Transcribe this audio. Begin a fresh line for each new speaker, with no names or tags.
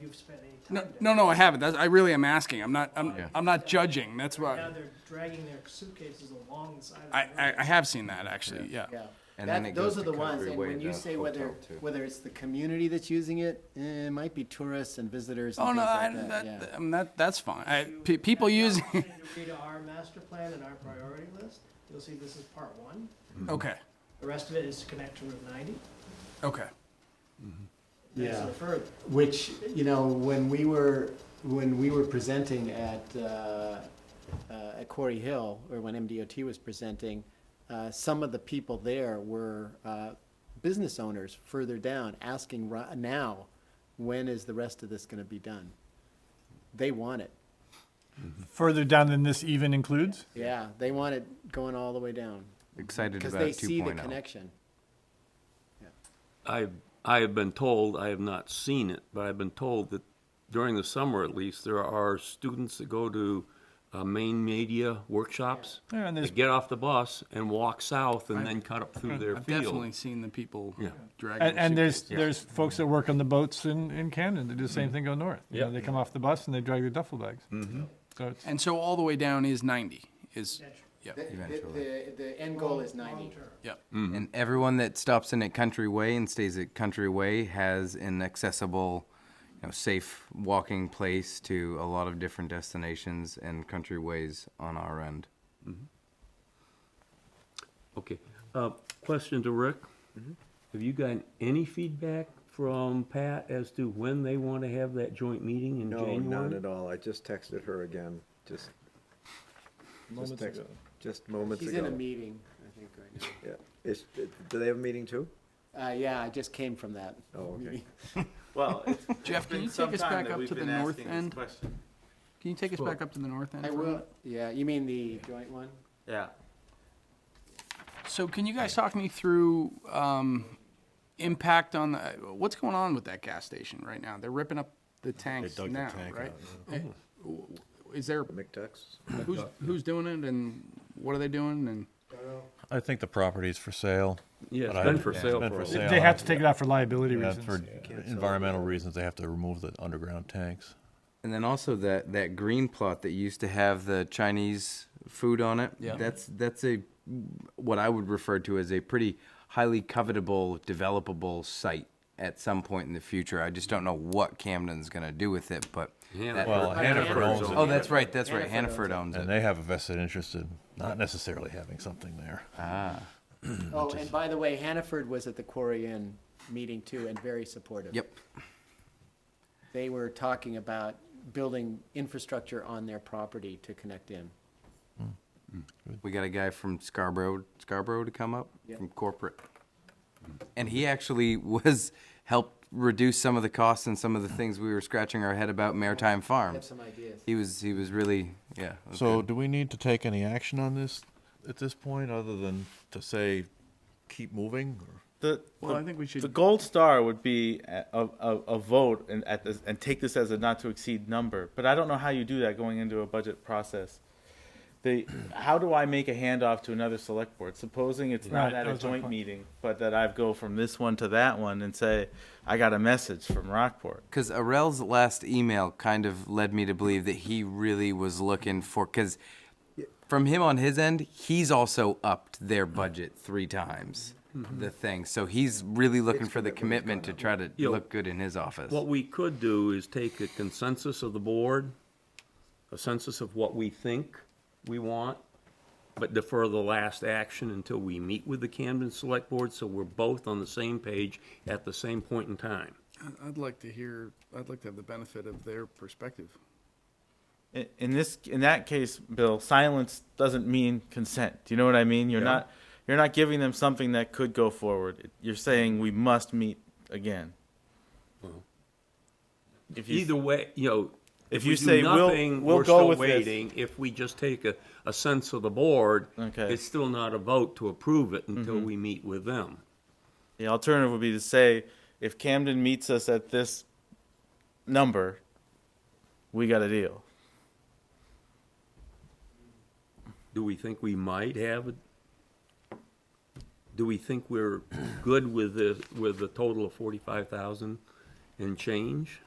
you've spent any time
No,
down
no, no, I haven't. That's, I really am asking. I'm not, I'm,
Yeah.
I'm not judging. That's
there.
why
Now they're dragging their suitcases along the side of the
I,
road.
I, I have seen that actually. Yeah.
Yeah,
And then
That-
it
those
goes
are
to
the ones,
Country
and
Way,
when you
the
say whether,
hotel, too.
whether it's the community that's using it, eh, it might be tourists and visitors
Oh
and
no,
things
I,
like that,
that,
yeah.
I mean, that that's fine. I, pe- people use.
If you have the opportunity to Read our master plan and our priority list, you'll see this is part one.
okay,
The rest of it is to connect to Route ninety,
okay.
and
Yeah.
so further.
Which, you know, when we were, when we were presenting at, uh, uh, at Quarry Hill, or when MDOT was presenting, uh, some of the people there were uh, business owners further down, asking ri- now, when is the rest of this going to be done? They want it.
Further down than this even includes?
Yeah, they want it going all the way down,
Excited
because
about oh.
they see the
2.0.
connection.
I, I have been told, I have not seen it, but I've been told that during the summer at least, there are students that go to uh, main media workshops.
Yeah, and
They
there's-
get off the bus and walk south and then cut up through their
I've
field.
definitely seen the people
Yeah.
dragging.
And,
their
and there's,
suitcases.
there's folks that work on the boats in, in Camden that do the same thing, go north. You know,
Yeah.
They come off the bus and they drag their duffel bags. So it's,
And so all the way down is 90. Is
That's
yeah,
The,
Eventually.
the, the end goal is
Long
ninety.
term.
yeah.
And everyone that stops in at Country Way and stays at Country Way has an accessible, you know, safe walking place to a lot of different destinations and country ways on our end.
Okay, uh, question to Rick.
Mm-hmm.
Have you gotten any feedback from Pat as to when they want to have that joint meeting in
No,
January?
none at all. I just texted her again, just. Moments ago. Just moments
He's in a
ago.
meeting, I think, right now.
Yeah. Is, do they have a meeting too?
Uh, yeah, I just came from that.
Oh, okay.
Well, it's
Jeff, can
been
you
some
take us
time
back
that
up
we've
to the
been
north
asking this
end?
question.
Can you take us back up to the north end?
I
for a
will,
minute?
yeah, you mean the joint one?
Yeah.
So can you guys talk me through um, impact on the what's going on with that gas station right now? They're ripping up the tanks
dug the
now,
tank
right? Eh, w- Is there
McTucks?
who's who's doing it and what are they doing and
I think the property's for sale.
Yeah, it's
But I-
been for
yeah, it's
sale
been
for
for
a while.
sale.
they have to take it out for liability
Yeah,
reasons.
for environmental reasons, they have to remove the underground tanks.
And then also that, that green plot that used to have the Chinese food on it.
Yeah.
That's, that's a, what I would refer to as a pretty highly covetable, developable site at some point in the future. I just don't know what Camden's gonna do with it, but. that-
Well, Hannaford owns
Oh,
it,
that's right, that's right. Hannaford owns
and
it.
they have a vested interest in not necessarily having something there.
Mm,
Oh, and by the way, Hannaford was at the Quarry Inn meeting too and very supportive.
Yep.
They were talking about building infrastructure on their property to connect in.
We got a guy from Scarborough, Scarborough to come up
Yep.
from corporate. And he actually was, helped reduce some of the costs and some of the things we were scratching our head about maritime
I have
farms.
some ideas.
He was, he was really, yeah. it was
So
good.
do we need to take any action on this at this point, other than to say, keep moving? or-
The,
Well,
the-
I think we should-
The gold star would be a, a, a a vote and, at this, and take this as a not to exceed number. But I don't know how you do that going into a budget process. The, how do I make a handoff to another select board? Supposing it's
Right,
not at
that
a
was my
joint
point.
meeting, but that I go from this one to that one and say, I got a message from Rockport.
Because Arel's last email kind of led me to believe that he really was looking for. Because from him on his end, he's also upped their budget three times.
Mm-hmm.
The thing, so he's really looking for the commitment to try to
Yeah.
look good in his office.
What we could do is take a consensus of the board, a census of what we think we want, but defer the last action until we meet with the Camden Select Board, so we're both on the same page at the same point in time.
I'd like to hear I'd like to have the benefit of their perspective.
In- in this in that case bill silence doesn't mean consent do you know what i mean you're not you're not giving them something that could go forward you're saying we must meet again if you
Either way, you know, if
If you
we do
say, "We'll-
nothing,
we'll
we're
go
still
with this."
waiting. If we just take a, a sense of the board,
Okay. Mm-hmm.
it's still not a vote to approve it until we meet with them.
the alternative would be to say if camden meets us at this number we got a deal
Do we think we might have, a- do we think we're good with the, with the total of forty-five thousand and change?